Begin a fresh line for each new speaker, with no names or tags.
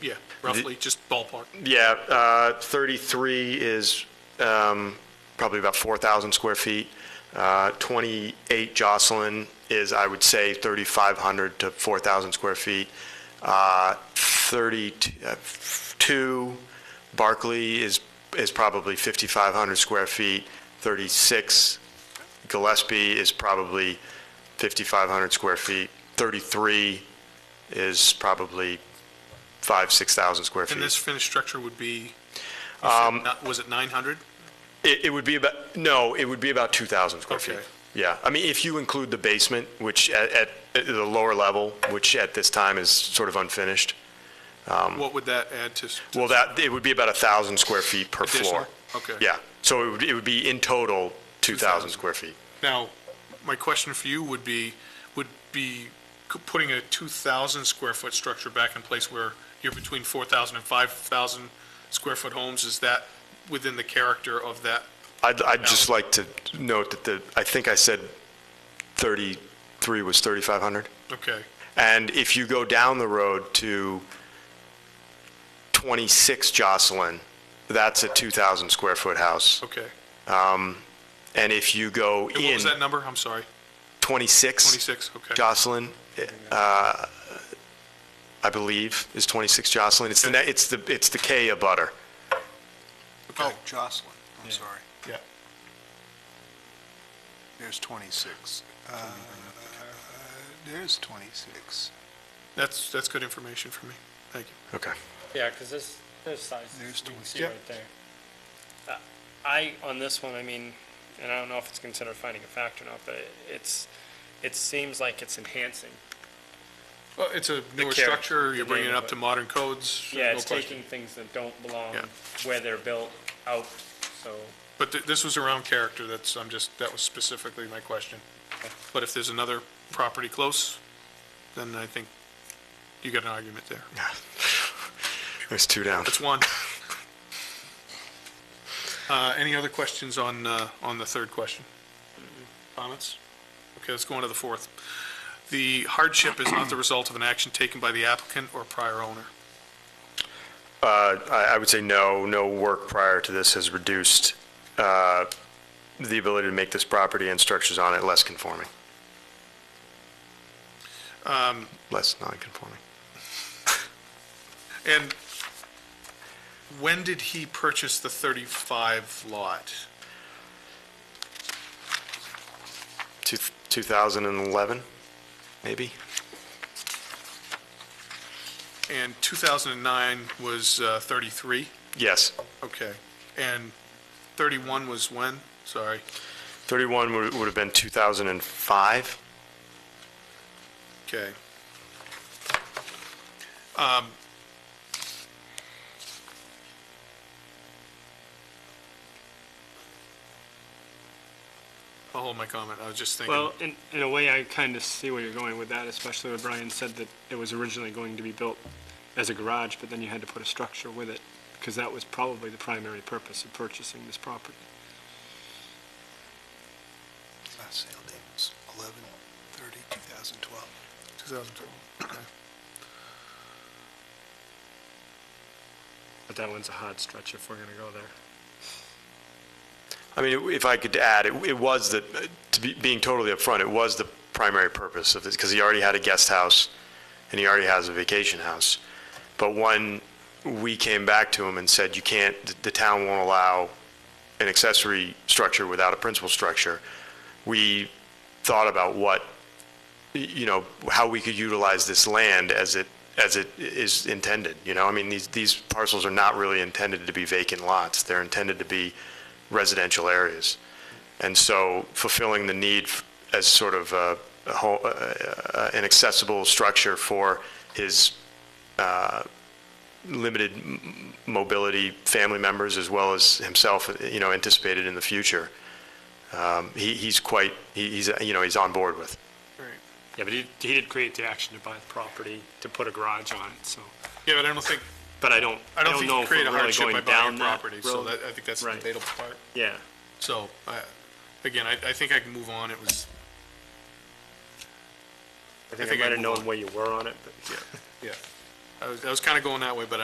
Yeah, roughly, just ballpark.
Yeah, uh, 33 is um, probably about 4,000 square feet. Uh, 28 Jocelyn is, I would say, 3,500 to 4,000 square feet. Uh, 32 Barclay is, is probably 5,500 square feet. 36 Gillespie is probably 5,500 square feet. 33 is probably 5, 6,000 square feet.
And this finished structure would be, you
Um,
said not- was it 900?
It, it would be about, no, it would be about 2,000 square feet.
Okay.
Yeah, I mean, if you include the basement, which at, at at the lower level, which at this time is sort of unfinished,
What would that add to? s- to
um, well, that, it would be about 1,000 square feet per floor.
Additional? Okay.
Yeah, so it would, it would be in total
2,000.
2,000 square feet.
Now, my question for you would be, would be c- putting a 2,000 square foot structure back in place where you're between 4,000 and 5,000 square foot homes, is that within the character of that?
I'd, I'd just like to note that the, I think I said 33 was 3,500.
Okay,
And if you go down the road to 26 Jocelyn, that's a 2,000 square foot house.
okay.
And if you go
And what
in
was that number? I'm sorry,
26
26, okay.
Jocelyn, uh, I believe, is 26 Jocelyn. It's the, ne- it's the, it's the K of butter.
Oh, Jocelyn, I'm sorry.
Yeah.
There's 26. Uh, There's 26.
That's, that's good information for me. Thank you.
Okay.
Yeah, because this, this size, you
There's
can
20.
see
Yeah.
right there. Uh, I, on this one, I mean, and I don't know if it's considered finding a fact or not, but it- it's, it seems like it's enhancing.
Well, it's a newer
character,
structure,
the
you're bringing it up
neighborhood.
to modern codes.
Yeah,
no
it's
question.
taking things that don't belong
Yeah.
where they're built out, so.
But th- this was around character, that's, I'm just, that was specifically my question. But if there's another property close, then I think you got an argument there.
There's two down.
That's one. Uh, Any other questions on, uh, on the third question? Comments? Okay, let's go on to the fourth. The hardship is not the result of an action taken by the applicant or prior owner.
Uh, I I would say no, no work prior to this has reduced uh, the ability to make this property and structures on it less conforming.
Um,
Less non-conforming.
And when did he purchase the 35 lot?
Two- 2011, maybe?
And 2009 was uh, 33?
Yes.
Okay. And 31 was when? Sorry.
31 would would have been 2005?
Okay. Um, I'll hold my comment. I was just thinking,
Well, in, in a way, I kind of see where you're going with that, especially when Brian said that it was originally going to be built as a garage, but then you had to put a structure with it, because that was probably the primary purpose of purchasing this property.
Last sale date was 11/30, 2012.
2012.
But that one's a hard stretch if we're going to go there.
I mean, if I could add, it it was the, to be, being totally upfront, it was the primary purpose of this, because he already had a guest house, and he already has a vacation house. But when we came back to him and said, you can't, the town won't allow an accessory structure without a principal structure, we thought about what, you know, how we could utilize this land as it, as it is intended, you know? I mean, these, these parcels are not really intended to be vacant lots. They're intended to be residential areas. And so fulfilling the need f- as sort of a, a ho- uh, uh, an accessible structure for his uh, limited m- m- mobility family members as well as himself, you know, anticipated in the future, um, he, he's quite, he- he's, uh, you know, he's on board with.
All right.
Yeah, but he, he did create the action to buy the property, to put a garage on it, so,
Yeah, but I don't think,
but I don't,
I don't think
know
you
if we're
create a
really
hardship by
going
buying
down that
property, so
road.
that, I think that's the
Right.
debatable part.
Yeah,
So, I, again, I, I think I can move on. It was,
I
think
think
I
I might have
move on.
known where you were on it, but.
yeah. I was, I was kind of going that way, but I